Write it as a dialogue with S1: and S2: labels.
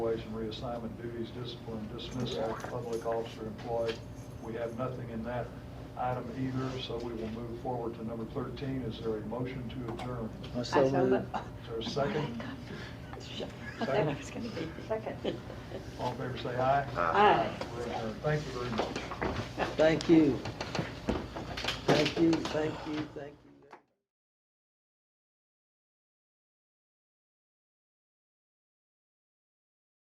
S1: evaluation, reassignment, duties, discipline, dismissal, public officer employed. We have nothing in that item either, so we will move forward to number 13. Is there a motion to adjourn?
S2: so
S3: I so
S2: moved.
S3: moved.
S1: Is there a second?
S3: I thought it was gonna be
S4: Second.
S1: All in favor, say aye.
S3: Aye.
S1: We're adjourned. Thank you very much.
S2: Thank you. Thank you, thank you, thank you.